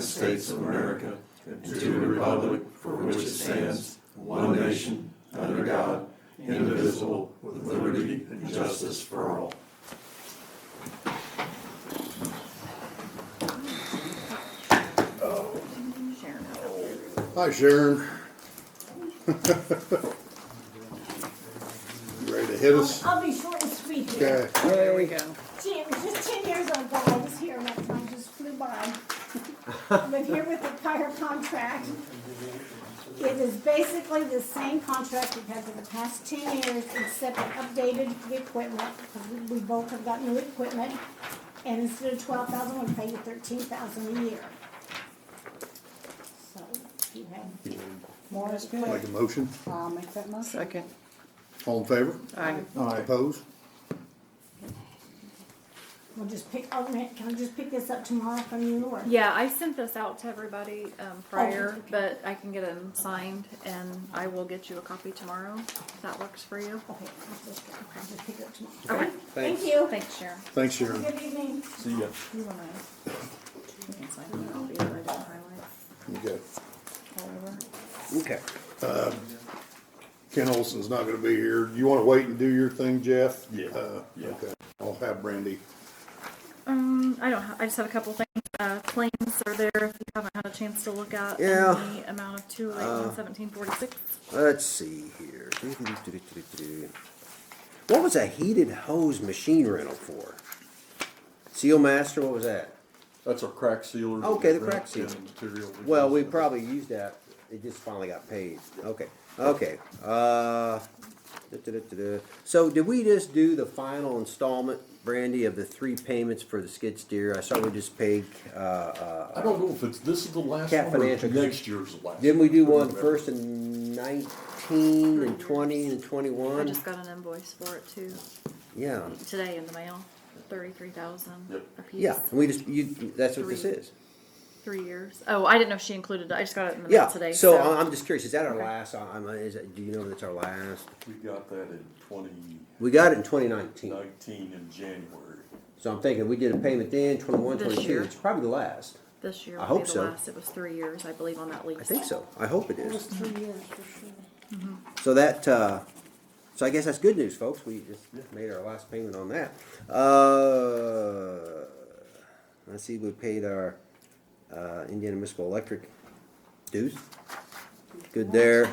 States of America and to the republic for which it stands, one nation, under God, indivisible, with liberty and justice for all. Hi Sharon. You Ready to hit us? I'll be short and sweet Okay. here. There we go. Gee, it was just ten years ago, I was here, and that time just flew by. But here with the prior contract, it is basically the same contract we've had for the past ten years, except it updated the equipment, because we- we both have got new equipment. And instead of twelve thousand, we pay you thirteen thousand a year. So, if you have more Make a equipment, motion. I'll make that motion. Second. All in favor? Aye. Aye. Opposed? We'll just pick, oh, man, can I just pick this up tomorrow from you, or? Yeah, I sent this out to everybody um, prior, but I can get them signed and I will get you a copy tomorrow. If that works for you. Okay, I'll just, I'll just pick it up tomorrow. Okay. Thank you. Thanks, Sharon. Thanks Sharon. Good evening. See ya. You wanna- you can sign the copy that I didn't highlight Okay. all over. Okay. Ken Olson's not gonna be here. You wanna wait and do your thing, Jeff? Yeah, Uh, yeah. Okay. I'll have Brandy. Um, I don't, ha- I just have a couple things. Uh, claims are there if you haven't had a chance to look at. in Yeah. Uh, The amount of two eighteen seventeen forty-six. Let's see here. What was a heated hose machine rental for? Seal Master, what was that? That's our crack sealer. Okay, the crack sealer. And material we Well, we use. probably used that, it just finally got paid. Okay, okay, uh, da-da-da-da-da. so did we just do the final installment, Brandy, of the three payments for the skid steer? I saw we just paid, uh, I don't know if it's, this is the last Cat one or Financial. next year's the last. didn't we do one Remember. first in nineteen and twenty and I twenty-one? just got an invoice for it too, Yeah. today in the mail, thirty-three thousand Yep. a piece. Yeah, and we just, you, that's what this Three. is. Three years. Oh, I didn't know if she included it. I just got it in the mail Yeah, today. so I- I'm just curious, is that our Okay. last, I- I'm, is that, do you know if it's our last? We got that in twenty We got it in twenty nineteen, nineteen in January. so I'm thinking we did a payment then, twenty-one, This twenty-two, year. it's probably the last. this year I will hope be the so. last. It was three years, I believe, on that lease. I think so, I hope it It was is. three years for sure. So that, uh, so I guess that's good news, folks, we just made our last payment on that. Uh, let's see, we paid our, uh, Indiana Municipal Electric dues. Good there,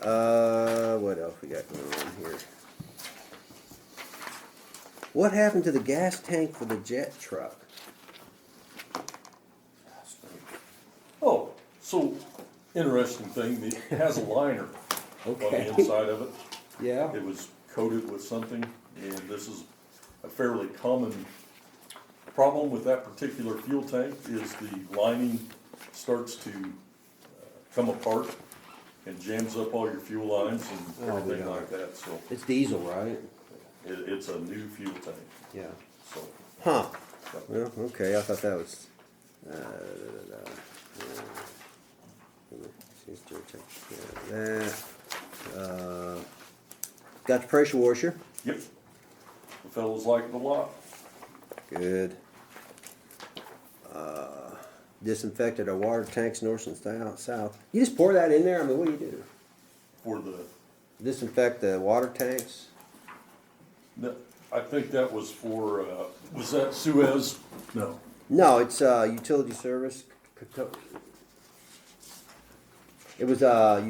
uh, what else we got going on here? What happened to the gas tank for the jet truck? Oh, so interesting thing, it has a liner on Okay. the inside of it. Yeah, It was coated with something, and this is a fairly common problem with that particular fuel tank is the lining starts to uh, come apart and jams up all your fuel lines and Oh, everything yeah. like that, so it's diesel, right? it, it's a new fuel tank, Yeah. so. Huh, but- well, okay, I thought that was, uh, da, da, da, da, yeah. Seems to check, yeah, that, uh, got the pressure washer, Yep, the fellows like it a lot, good. Uh, Disinfected our water tanks north and sou- south, you just pour that in there, I mean, what do you do? for the, Disinfect the water tanks? no, I think that was for, uh, was that Suez? No. No, it's uh, utility service. It was uh,